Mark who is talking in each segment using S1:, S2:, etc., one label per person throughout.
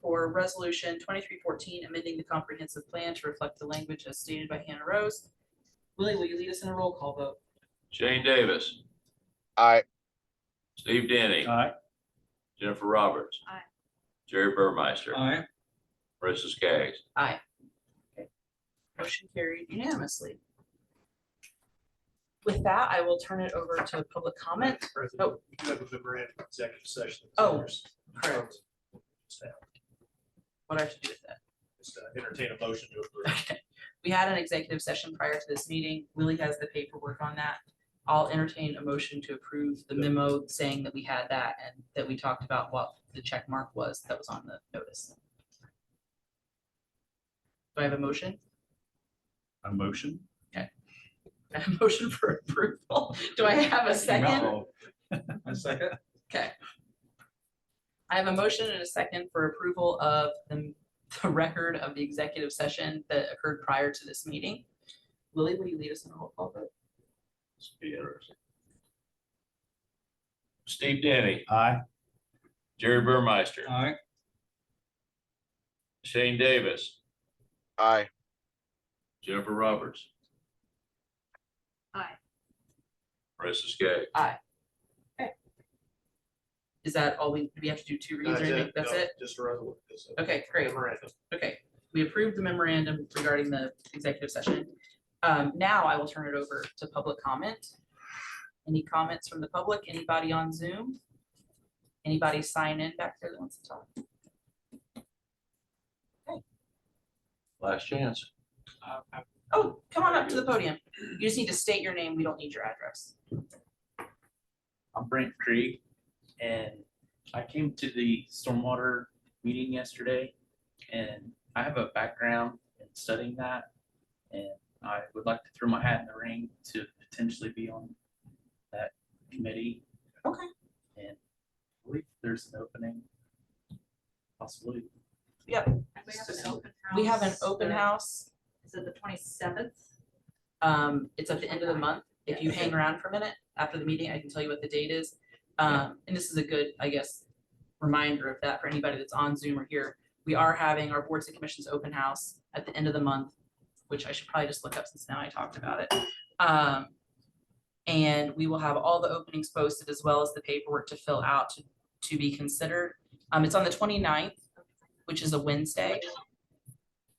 S1: for resolution twenty-three fourteen, amending the comprehensive plan to reflect the language as stated by Hannah Rose. Willie, will you lead us in a roll call vote?
S2: Shane Davis,
S3: aye,
S2: Steve Denny,
S4: Aye.
S2: Jennifer Roberts.
S1: Aye.
S2: Jerry Burmeister,
S4: Aye.
S2: Marissa Skaggs.
S1: Aye. Okay. Motion carried unanimously. With that, I will turn it over to public comment.
S5: President,
S1: Oh.
S5: we do have a memorandum of executive session.
S1: Oh,
S5: Correct.
S1: What I should do with that.
S5: uh, Entertain a motion to approve.
S1: We had an executive session prior to this meeting. Willie has the paperwork on that. I'll entertain a motion to approve the memo saying that we had that and that we talked about what the check mark was that was on the notice. Do I have a motion?
S4: A motion?
S1: A motion for approval? Do I have a second?
S4: No.
S5: Oh. A second.
S1: Okay. I have a motion and a second for approval of the, the record of the executive session that occurred prior to this meeting. Willie, will you lead us in a roll call vote?
S2: This will be interesting. Steve Denny,
S4: Aye.
S2: Jerry Burmeister,
S4: Aye.
S2: Shane Davis,
S3: aye.
S2: Jennifer Roberts,
S1: Aye.
S2: Marissa Skaggs.
S1: Is that all we, do we have to do two reads or anything? That's it?
S5: Just a resolution. it's a
S1: Okay, great.
S5: Memorandum.
S1: Okay, we approved the memorandum regarding the executive session. Um, now I will turn it over to public comment. Any comments from the public? Anybody on Zoom? Anybody sign in back there that wants to talk?
S2: Last chance.
S1: Oh, come on up to the podium. You just need to state your name. We don't need your address.
S6: I'm Brent Krieg, and I came to the stormwater meeting yesterday, and I have a background in studying that. And I would like to throw my hat in the ring to potentially be on that committee.
S1: Okay.
S6: And I believe there's an opening, possibly.
S7: We have an open house.
S1: We have an open
S7: the-
S1: house.
S7: Is it the twenty-seventh?
S1: Um, it's at the end of the month. If you hang around for a minute after the meeting, I can tell you what the date is. Um, and this is a good, I guess, reminder of that for anybody that's on Zoom or here. We are having our boards and commissions open house at the end of the month, which I should probably just look up since now I talked about it. Um, and we will have all the openings posted as well as the paperwork to fill out to, to be considered. Um, it's on the 29th, which is a Wednesday.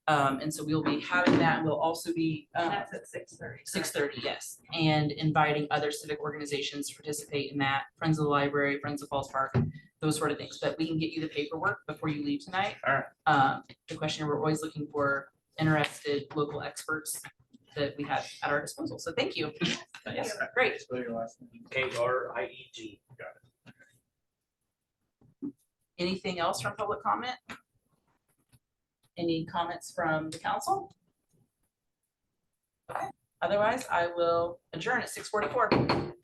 S1: Um, and so we'll be having that and we'll also be, um,
S7: That's at six thirty.
S1: Six thirty, yes, and inviting other civic organizations to participate in that, Friends of the Library, Friends of Falls Park, those sort of things, but we can get you the paperwork before you leave tonight.
S6: All right.
S1: Um, the question, we're always looking for interested local experts that we have at our disposal, so thank you. Yes, great,
S5: Spell your last name.
S6: K R I E G.
S1: anything else from public comment? Any comments from the council? Okay. Otherwise, I will adjourn at six forty-four.